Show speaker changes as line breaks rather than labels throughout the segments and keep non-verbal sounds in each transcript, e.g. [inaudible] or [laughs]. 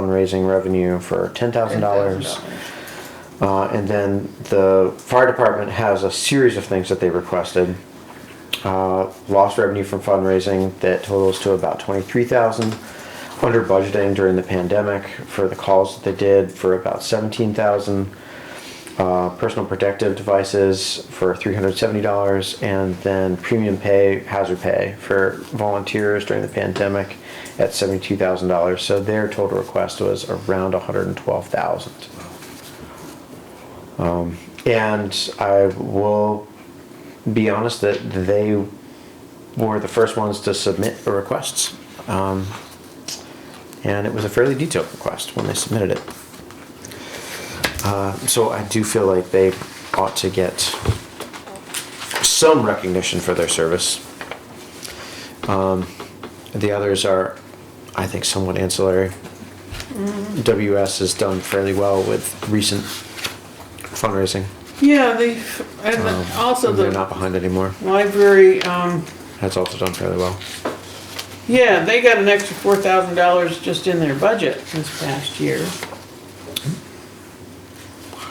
fundraising revenue for ten thousand dollars. Uh, and then the fire department has a series of things that they requested. Uh, lost revenue from fundraising that totals to about twenty-three thousand. Under budgeting during the pandemic for the calls that they did for about seventeen thousand. Uh, personal protective devices for three hundred seventy dollars, and then premium pay, hazard pay for volunteers during the pandemic at seventy-two thousand dollars. So their total request was around one hundred and twelve thousand. Um, And I will be honest that they were the first ones to submit the requests. Um, and it was a fairly detailed request when they submitted it. Uh, so I do feel like they ought to get some recognition for their service. Um, the others are, I think, somewhat ancillary. WS has done fairly well with recent fundraising.
Yeah, they, and
Um,
also
they're
the
not behind anymore.
library, um,
That's also done fairly well.
yeah, they got an extra four thousand dollars just in their budget this past year.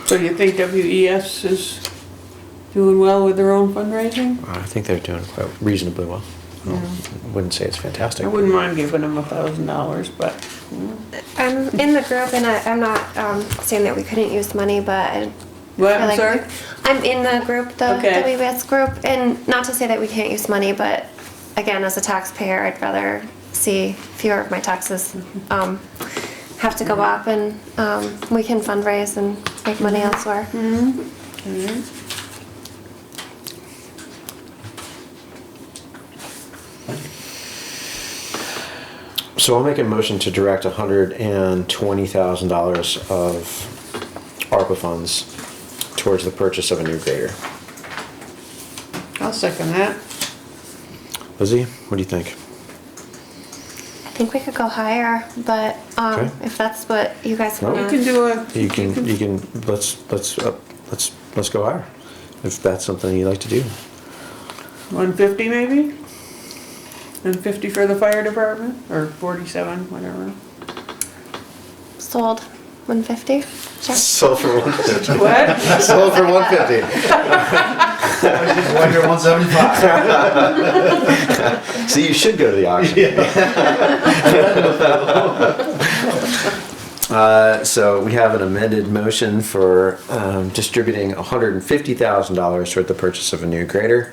So you think WES is doing well with their own fundraising?
I think they're doing quite reasonably well. I wouldn't say it's fantastic.
I wouldn't mind giving them a thousand dollars, but
I'm in the group, and I, I'm not um, saying that we couldn't use money, but I,
What,
I
I'm
like-
sorry?
I'm in the group, the
Okay.
WBS group, and not to say that we can't use money, but again, as a taxpayer, I'd rather see fewer of my taxes um, have to go
Mm-hmm.
up, and um, we can fundraise and make money elsewhere.
Mm-hmm.
So I'll make a motion to direct hundred and twenty thousand dollars of ARPA funds towards the purchase of a new grader.
I'll second that.
Lizzie, what do you think?
I think we could go higher, but um,
Okay.
if that's what you guys
No.
want,
You can do a,
You can, you can, let's, let's, uh, let's, let's go higher. If that's something you like to do.
one fifty maybe? And fifty for the fire department, or forty-seven, whatever.
sold 150. Sure.
Sold for one fifty.
What?
Sold for one fifty.
One year, one seventy-five.
See, you should go to the auction. Uh, so we have an amended motion for um, distributing $150,000 toward the purchase of a new grader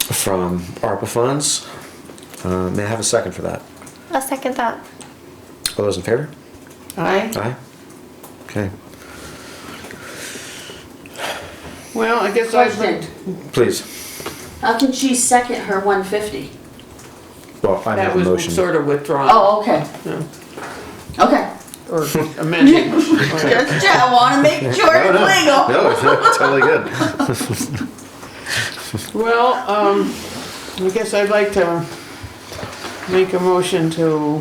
from ARPA funds. Uh, may I have a second for that?
I'll second that.
All those in favor?
Aye?
Aye. Okay.
Well, I guess I'd like,
Question,
Please.
how can she second her one fifty?
Well, I
that
have a
was
motion.
sort of withdrawn,
Oh, okay,
No.
okay.
[laughs] or amended. Or-
Just, yeah, I wanna
[laughs]
make sure
No, no.
it's legal.
No, it's totally good.
Well, um, I guess I'd like to make a motion to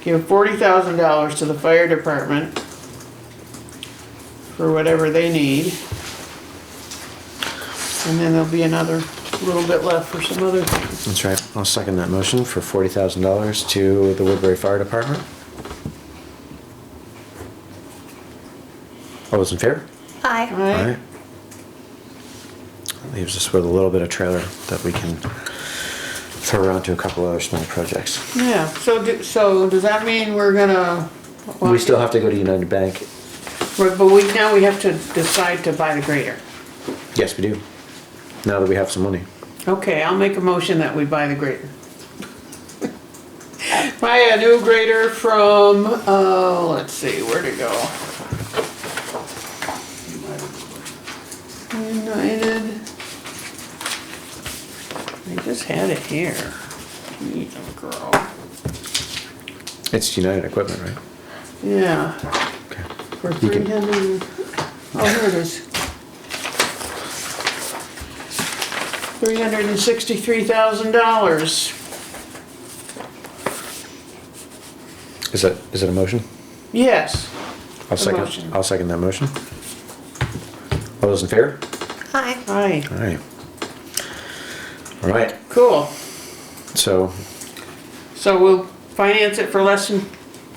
give forty thousand dollars to the fire department for whatever they need. And then there'll be another little bit left for some other things.
That's right. I'll second that motion for $40,000 to the Woodbury Fire Department. All those in favor?
Aye.
All
Aye?
right. That Leaves us with a little bit of trailer that we can throw around to a couple other small projects.
Yeah, so do, so does that mean we're gonna?
We still have to go to United Bank.
Right, But we, now we have to decide to buy the grader.
Yes, we do. Now that we have some money.
Okay, I'll make a motion that we buy the grader. Buy a new grader from, uh, let's see, where to go? United. I just had it here. Jeez, oh, girl.
It's United Equipment, right?
Yeah,
Okay.
for
You
three
can-
hundred, oh, here it is. Three hundred and sixty-three thousand dollars.
Is that, is it a motion?
Yes.
I'll second,
motion.
I'll second that motion. All those in favor?
Aye.
Aye.
All right. All right,
Cool.
so
So we'll finance it for less than